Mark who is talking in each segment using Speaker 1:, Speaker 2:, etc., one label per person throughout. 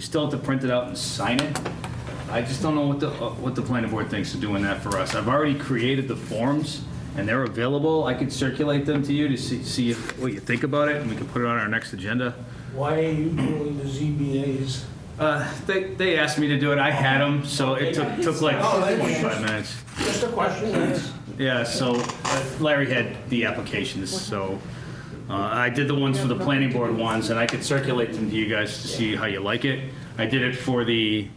Speaker 1: You still have to print it out and sign it. I just don't know what the, uh, what the planning board thinks of doing that for us. I've already created the forms, and they're available. I could circulate them to you to see, see if- what you think about it, and we can put it on our next agenda.
Speaker 2: Why are you doing the ZBAs?
Speaker 1: Uh, They, they asked me to do it, I had them, so it took, took like
Speaker 2: Oh, that's-
Speaker 1: 25 minutes.
Speaker 2: Just a question, yes.
Speaker 1: Yeah, so uh, Larry had the applications, so uh, I did the ones for the planning board ones, and I could circulate them to you guys to see how you like it. I did it for the,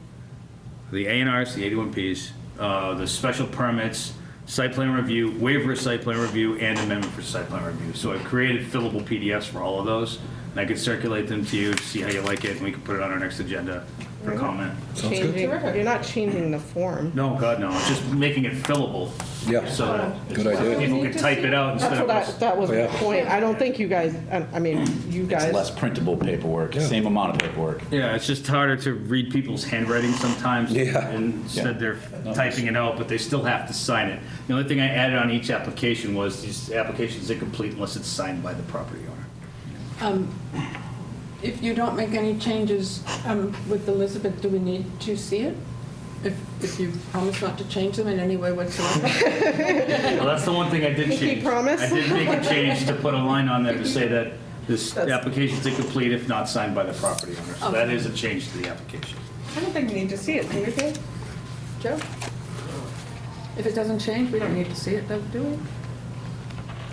Speaker 1: the A and Rs, the 81Ps, uh, the special permits, site plan review, waiver of site plan review, and amendment for site plan review. So I created fillable PDFs for all of those, and I could circulate them to you, to see how you like it, and we can put it on our next agenda for comment.
Speaker 3: changing, you're not changing the form.
Speaker 1: No, God, no, just making it fillable,
Speaker 4: Yeah,
Speaker 1: so that
Speaker 4: good idea.
Speaker 1: people can type it out
Speaker 3: That's
Speaker 1: instead of
Speaker 3: what I,
Speaker 1: us.
Speaker 3: that was
Speaker 4: Oh,
Speaker 3: the
Speaker 4: yeah.
Speaker 3: point. I don't think you guys, I I mean, you
Speaker 5: It's less
Speaker 3: guys,
Speaker 5: printable paperwork, same amount of paperwork.
Speaker 1: Yeah, it's just harder to read people's handwriting sometimes.
Speaker 4: Yeah.
Speaker 1: And instead they're typing it out, but they still have to sign it. The only thing I added on each application was these applications incomplete unless it's signed by the property owner.
Speaker 6: If you don't make any changes um, with Elizabeth, do we need to see it? If, if you promise not to change them in any way whatsoever?
Speaker 1: Well, that's the one thing I did
Speaker 3: Pinky
Speaker 1: change.
Speaker 3: promise?
Speaker 1: I did make a change to put a line on there to say that this
Speaker 3: That's-
Speaker 1: application's incomplete if not signed by the property owner. So that
Speaker 6: Okay.
Speaker 1: is a change to the application.
Speaker 3: I don't think you need to see it, do you think? Joe?
Speaker 6: If it doesn't change, we don't need to see it, though, do we?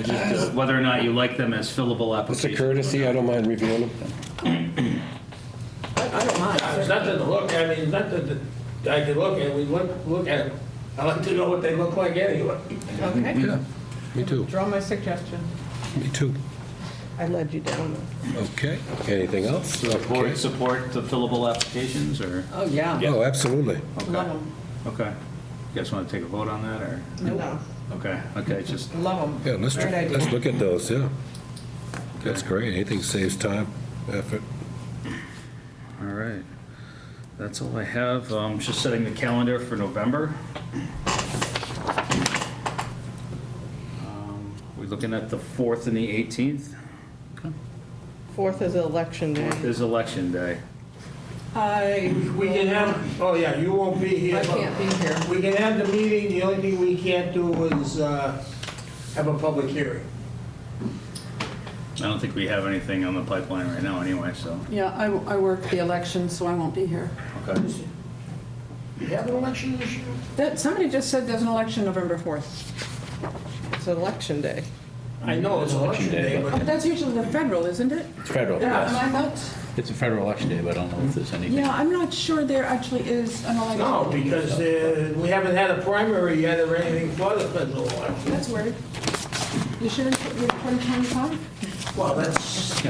Speaker 1: It's just uh, Whether or not you like them as fillable
Speaker 4: it's a
Speaker 1: applications.
Speaker 4: courtesy, I don't mind reviewing them.
Speaker 2: I don't mind. There's nothing to look, I mean, nothing that I can look at, we look, look at, them. I like to know what they look like anyway.
Speaker 6: Okay,
Speaker 7: Yeah, me too,
Speaker 6: draw my suggestion.
Speaker 7: me too.
Speaker 3: I led you down.
Speaker 7: Okay. Uh,
Speaker 4: Anything else?
Speaker 1: Board
Speaker 4: Okay.
Speaker 1: support the fillable applications or?
Speaker 6: Oh, yeah.
Speaker 7: Oh, absolutely.
Speaker 6: Love them,
Speaker 1: Okay. You guys want to take a vote on that, or?
Speaker 3: No.
Speaker 1: Okay, okay, just,
Speaker 6: love
Speaker 7: Yeah,
Speaker 6: them.
Speaker 7: let's,
Speaker 6: Great idea.
Speaker 7: let's look at those, yeah. That's great, anything saves time, effort.
Speaker 1: all right. That's all I have. Um, just setting the calendar for November. Um, We're looking at the 4th and the 18th.
Speaker 3: Fourth is election day.
Speaker 1: There's election day.
Speaker 6: I,
Speaker 2: We can have, oh yeah, you won't be here.
Speaker 6: I
Speaker 2: but
Speaker 6: can't be here.
Speaker 2: We can have the meeting, the only thing we can't do is uh, have a public hearing.
Speaker 1: I don't think we have anything on the pipeline right now anyway, so.
Speaker 6: Yeah, I, I work the election, so I won't be here.
Speaker 1: Okay.
Speaker 2: You have an election this year?
Speaker 6: That, somebody just said there's an election November 4th.
Speaker 3: It's election day.
Speaker 2: I know it's election day,
Speaker 6: Oh, But
Speaker 2: but
Speaker 6: that's usually the federal, isn't it?
Speaker 5: It's federal,
Speaker 6: Am
Speaker 5: yes.
Speaker 6: I not?
Speaker 5: It's a federal election day, but I don't know if there's anything.
Speaker 6: Yeah, I'm not sure there actually is an election.
Speaker 2: no, because uh, we haven't had a primary yet or anything for the federal election.
Speaker 6: That's weird. You shouldn't put your 2025?
Speaker 2: Well, that's,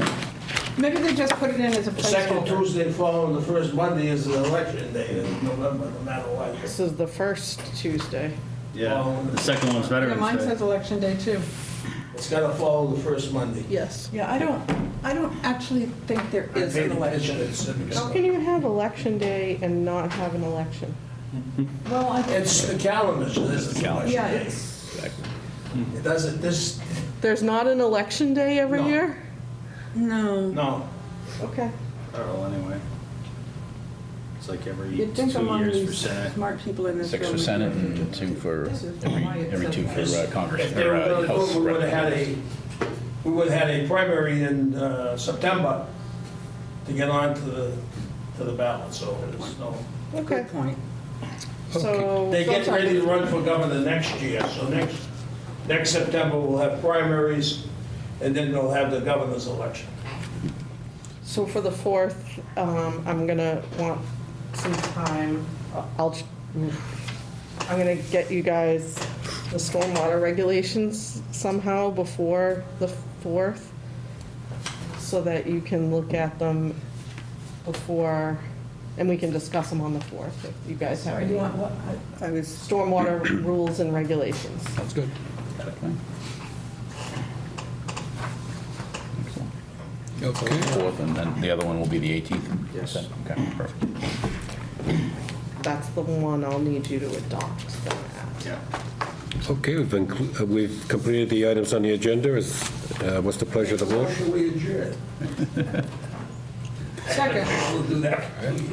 Speaker 6: Maybe they just put it in as a
Speaker 2: the second
Speaker 6: placeholder.
Speaker 2: Tuesday following the first Monday is the election day in November, no matter what.
Speaker 3: This is the first Tuesday.
Speaker 1: Yeah, the second one's
Speaker 6: Yeah, mine
Speaker 1: Veterans Day.
Speaker 6: says election day too.
Speaker 2: It's gotta follow the first Monday.
Speaker 3: Yes.
Speaker 6: Yeah, I don't, I don't actually think there is an election.
Speaker 3: How can you have election day and not have an election?
Speaker 6: Well, I,
Speaker 2: It's the calendar, so this is the election
Speaker 6: yeah,
Speaker 2: day.
Speaker 6: it's,
Speaker 2: It doesn't, this,
Speaker 3: There's not an election day every
Speaker 2: No.
Speaker 3: year?
Speaker 6: no.
Speaker 2: no.
Speaker 3: Okay.
Speaker 1: Federal Oh, anyway. It's like every
Speaker 6: You'd
Speaker 1: two
Speaker 6: think among
Speaker 1: years for
Speaker 6: these
Speaker 1: Senate.
Speaker 6: smart people in this room.
Speaker 5: Six for Senate and two for, every every two for uh, Congress,
Speaker 2: If they
Speaker 5: or
Speaker 2: were
Speaker 5: uh,
Speaker 2: gonna do
Speaker 5: House
Speaker 2: it, we would've had
Speaker 5: Representatives.
Speaker 2: a, we would've had a primary in uh, September to get on to the, to the ballot, so there's no.
Speaker 3: Okay.
Speaker 6: Good point.
Speaker 3: So.
Speaker 2: They get
Speaker 3: sometime-
Speaker 2: ready to run for governor next year, so next, next September we'll have primaries, and then they'll have the governor's election.
Speaker 3: So for the 4th, um, I'm gonna want some time, I'll, I'm gonna get you guys the stormwater regulations somehow before the 4th, so that you can look at them before, and we can discuss them on the 4th, if you guys have any
Speaker 6: I was,
Speaker 3: stormwater rules and regulations.
Speaker 7: Sounds good. Okay,
Speaker 5: Fourth, and then the other one will be the 18th. Yes. Okay, perfect.
Speaker 3: That's the one I'll need you to adopt from that.
Speaker 1: Yeah.
Speaker 7: okay, we've been, uh, we've completed the items on the agenda, is, uh, what's the pleasure of the board?
Speaker 2: Motion we adjourn.
Speaker 8: Second.
Speaker 6: We'll do that.